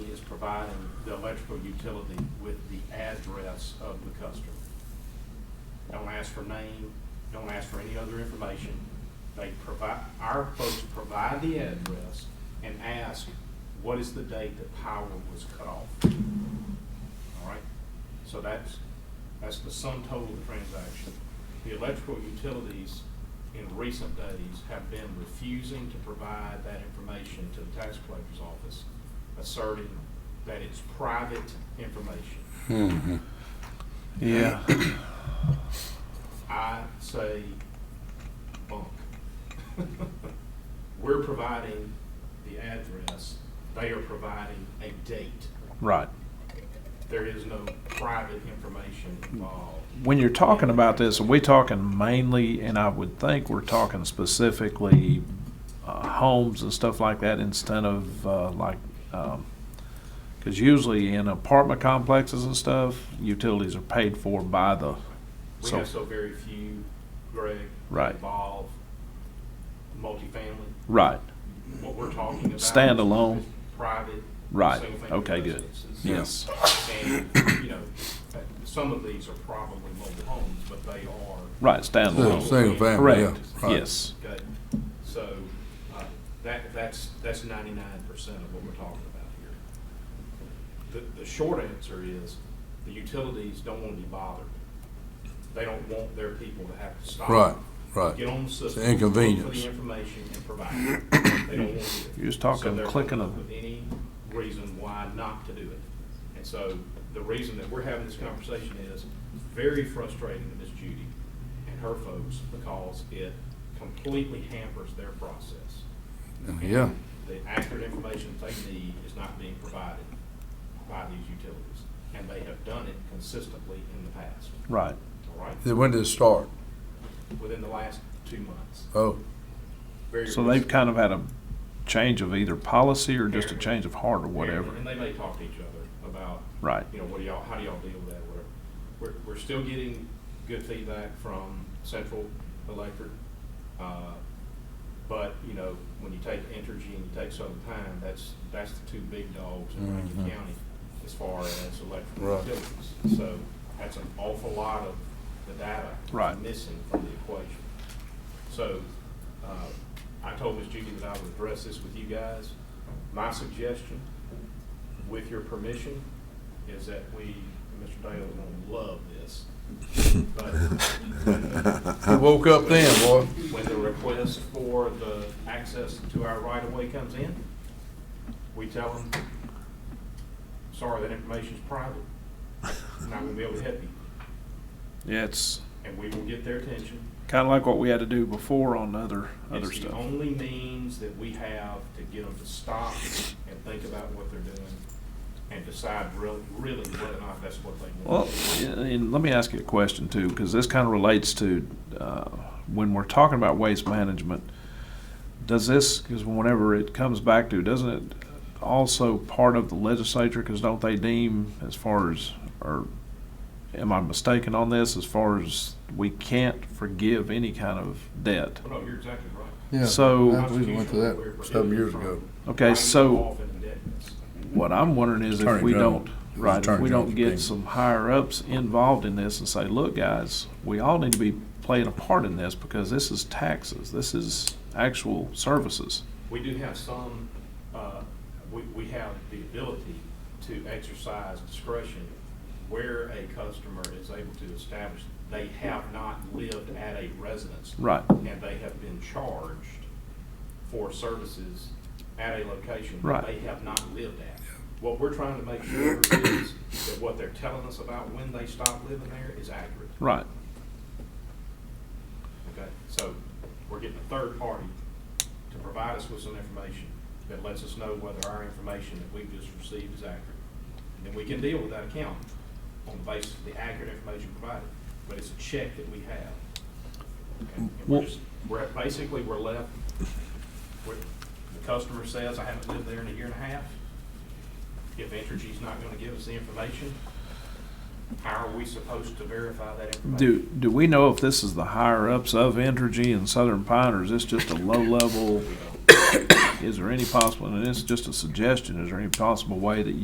providing the electrical utility with the address of the customer. Don't ask for name, don't ask for any other information. They provide, our folks provide the address and ask, what is the date that power was cut off? All right? So that's, that's the sum total of the transaction. The electrical utilities in recent days have been refusing to provide that information to the tax collector's office, asserting that it's private information. Yeah. I say bunk. We're providing the address, they are providing a date. Right. There is no private information involved. When you're talking about this, are we talking mainly, and I would think we're talking specifically uh, homes and stuff like that instead of uh, like, because usually in apartment complexes and stuff, utilities are paid for by the, We So- have so very few, Greg, Right. involve multifamily. right, What we're talking about. is Standalone. Private. Right. single-family Okay, good. residences. yes. And, you know, some of these are probably mobile homes, but they are Right, Single- standalone, Single family, yeah. correct, right. yes. Okay, so, uh, that, that's, that's ninety-nine percent of what we're talking about here. The, the short answer is, the utilities don't wanna be bothered. They don't want their people to have to stop. Right, right. Get on the system. look For inconvenience. the information and provide it. They don't want to do it. You're just talking So they're clicking coming up of- With any reason why not to do it. And so the reason that we're having this conversation is very frustrating to Ms. Judy and her folks because it completely hampers their process. Yeah, The accurate information that they need is not being provided by these utilities. And they have done it consistently in the past, Right, all right? Then when did it start? Within the last two months. Oh, Very so they've recent. kind of had a change of either policy or just a change of heart or whatever, And they may talk to each other about, right, you know, what do y'all, how do y'all deal with that, whatever. We're, we're still getting good feedback from Central Electric. uh, But, you know, when you take Entergy and you take Southern Pine, that's, that's the two big dogs in Rankin Mhm. County as far as electrical Right. utilities. So that's an awful lot of the data Right. missing from the equation. So uh, I told Ms. Judy that I would address this with you guys. My suggestion, with your permission, is that we, Mr. Dale is going to love this, but you woke up then, boy. when the request for the access to our right-of-way comes in, we tell them, sorry, that information's private. I'm Not gonna be able to help you. yeah, it's. And we will get their attention. Kind of like what we had to do before on other, other It's the stuff. only means that we have to get them to stop and think about what they're doing and decide really, really whether or not that's what they Well, want. and let me ask you a question too, because this kind of relates to, uh, when we're talking about waste management, does this, because whenever it comes back to, doesn't it also part of the legislature, because don't they deem as far as, or am I mistaken on this, as far as we can't forgive any kind of debt? Well, no, you're exactly right. Yeah, So- I believe we went to that seven years ago. Okay, so. Off in indebtedness. What I'm wondering is if Attorney we General. don't, It was right, if Attorney we don't General's get opinion. some higher ups involved in this and say, look, guys, we all need to be playing a part in this because this is taxes, this is actual services. We do have some, uh, we, we have the ability to exercise discretion where a customer is able to establish they have not lived at a residence. Right. And they have been charged for services at a location that Right. they have not lived at. What we're trying to make sure is that what they're telling us about when they stop living there is accurate. Right, Okay, so we're getting a third party to provide us with some information that lets us know whether our information that we've just received is accurate. And then we can deal with that account on the basis of the accurate information provided, but it's a check that we have. Okay, And we're Well- just, we're, basically, we're left, where the customer says, I haven't lived there in a year and a half. If Entergy's not gonna give us the information, how are we supposed to verify that information? do, do we know if this is the higher ups of Entergy and Southern Pine, or is this just a low level? Is there any possible, and it's just a suggestion, is there any possible way that